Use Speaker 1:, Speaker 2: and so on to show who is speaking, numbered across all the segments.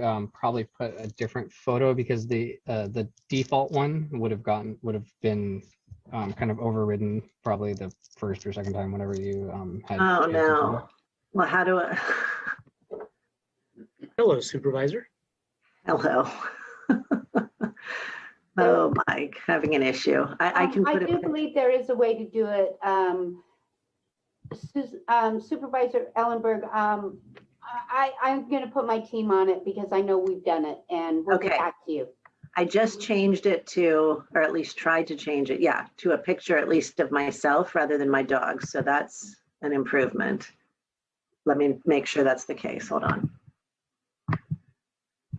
Speaker 1: um, probably put a different photo because the, uh, the default one would have gotten, would have been um, kind of overridden probably the first or second time, whenever you um, had.
Speaker 2: Oh,
Speaker 1: chance to do
Speaker 2: no.
Speaker 1: that.
Speaker 2: Well, how do I?
Speaker 3: Hello, Supervisor.
Speaker 2: Hello. Oh, Mike, having an issue. I, I
Speaker 4: Um,
Speaker 2: can put
Speaker 4: do
Speaker 2: it,
Speaker 4: believe there is a way to do it. Um, Sus- um, Supervisor Ellenberg, um, I, I- I'm going to put my team on it because I know we've done it and we'll get
Speaker 2: Okay.
Speaker 4: back to you.
Speaker 2: I just changed it to, or at least tried to change it, yeah, to a picture at least of myself rather than my dog. So that's an improvement. Let me make sure that's the case. Hold on.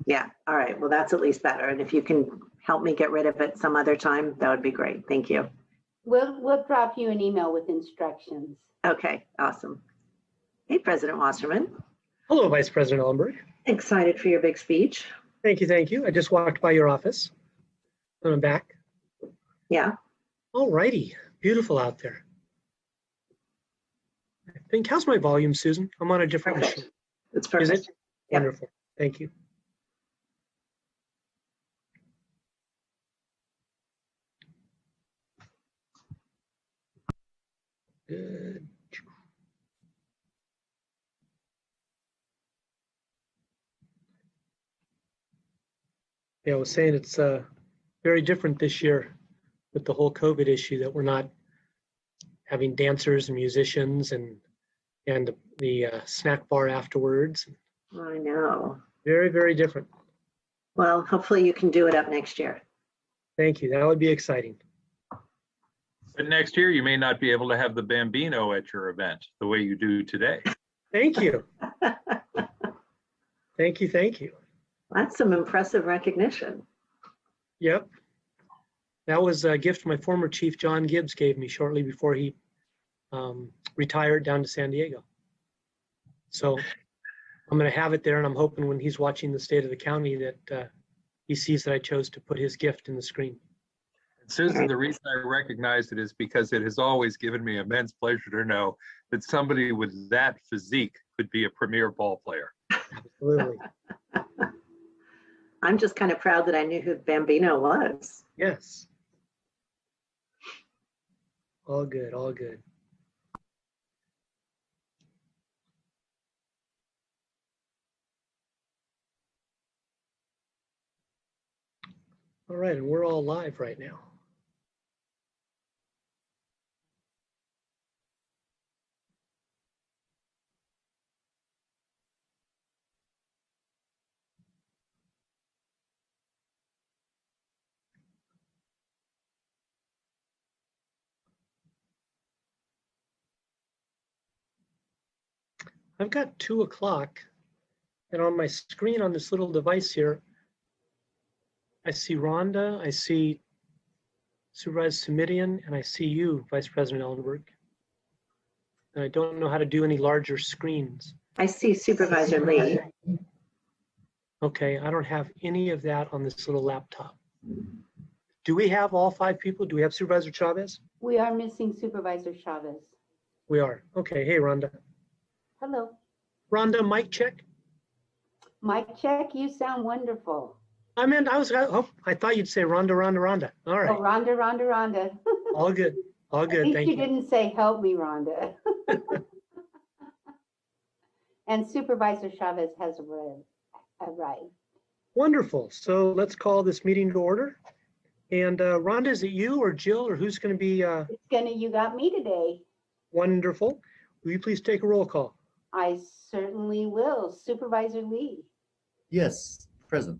Speaker 2: Yeah, all right. Well, that's at least better. And if you can help me get rid of it some other time, that would be great. Thank you.
Speaker 4: We'll, we'll drop you an email with instructions.
Speaker 2: Okay, awesome. Hey, President Wasserman,
Speaker 3: Hello, Vice President Ellenberg.
Speaker 2: excited for your big speech.
Speaker 3: Thank you, thank you. I just walked by your office. And I'm back.
Speaker 2: Yeah,
Speaker 3: All righty, beautiful out there. I think, how's my volume, Susan? I'm on a different
Speaker 2: Perfect.
Speaker 3: machine.
Speaker 2: it's
Speaker 3: Is
Speaker 2: perfect.
Speaker 3: it?
Speaker 2: Yep.
Speaker 3: Wonderful, thank you. Good. Yeah, I was saying it's uh, very different this year with the whole COVID issue that we're not having dancers and musicians and, and the uh, snack bar afterwards.
Speaker 2: I know.
Speaker 3: Very, very different.
Speaker 2: Well, hopefully you can do it up next year.
Speaker 3: Thank you. That would be exciting.
Speaker 5: But next year, you may not be able to have the Bambino at your event the way you do today.
Speaker 3: Thank you. Thank you, thank you.
Speaker 2: That's some impressive recognition.
Speaker 3: Yep. That was a gift my former chief, John Gibbs, gave me shortly before he um, retired down to San Diego. So I'm going to have it there and I'm hoping when he's watching the state of the county that uh, he sees that I chose to put his gift in the screen.
Speaker 5: Susan, the reason I recognized it is because it has always given me immense pleasure to know that somebody with that physique could be a premier ball player.
Speaker 3: Absolutely.
Speaker 2: I'm just kind of proud that I knew who Bambino was.
Speaker 3: Yes. All good, all good. All right, and we're all live right now. I've got two o'clock and on my screen on this little device here, I see Rhonda, I see Supervisor Sumidian, and I see you, Vice President Ellenberg. And I don't know how to do any larger screens.
Speaker 2: I see Supervisor Lee.
Speaker 3: Okay, I don't have any of that on this little laptop. Do we have all five people? Do we have Supervisor Chavez?
Speaker 4: We are missing Supervisor Chavez.
Speaker 3: We are. Okay, hey, Rhonda.
Speaker 4: Hello,
Speaker 3: Rhonda, mic check.
Speaker 4: Mike check, you sound wonderful.
Speaker 3: I meant, I was, oh, I thought you'd say Rhonda, Rhonda, Rhonda. All
Speaker 4: Oh,
Speaker 3: right,
Speaker 4: Rhonda, Rhonda, Rhonda.
Speaker 3: all good, all
Speaker 4: At
Speaker 3: good,
Speaker 4: least
Speaker 3: thank
Speaker 4: you
Speaker 3: you.
Speaker 4: didn't say, help me, Rhonda. And Supervisor Chavez has arrived- arrived.
Speaker 3: Wonderful. So let's call this meeting to order. And uh, Rhonda, is it you or Jill or who's going to be uh,
Speaker 4: It's gonna, you got me today.
Speaker 3: wonderful? Will you please take a roll call?
Speaker 4: I certainly will. Supervisor Lee,
Speaker 6: Yes, present.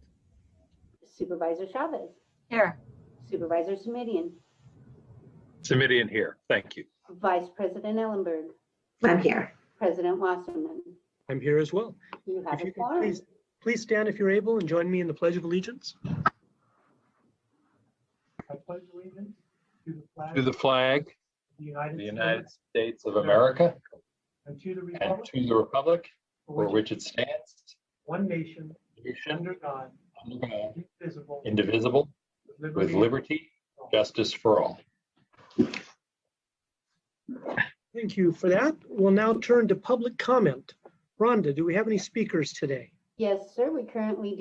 Speaker 4: Supervisor Chavez,
Speaker 7: Here,
Speaker 4: Supervisor Semidion,
Speaker 5: Semidion here. Thank you.
Speaker 4: Vice President Ellenberg,
Speaker 2: I'm here.
Speaker 4: President Wasserman.
Speaker 3: I'm here as well.
Speaker 4: You have
Speaker 3: If
Speaker 4: a
Speaker 3: you could
Speaker 4: quorum.
Speaker 3: please, please stand if you're able and join me in the Pledge of Allegiance. I pledge allegiance to the flag
Speaker 5: To the flag,
Speaker 3: of the United
Speaker 5: the
Speaker 3: States
Speaker 5: United States of America,
Speaker 3: and to the
Speaker 5: and
Speaker 3: republic
Speaker 5: to the republic
Speaker 3: for
Speaker 5: for
Speaker 3: which
Speaker 5: which it stands,
Speaker 3: one nation,
Speaker 5: nation
Speaker 3: under God,
Speaker 5: under God,
Speaker 3: indivisible,
Speaker 5: indivisible, with liberty, justice for all.
Speaker 3: Thank you for that. We'll now turn to public comment. Rhonda, do we have any speakers today?
Speaker 4: Yes, sir, we currently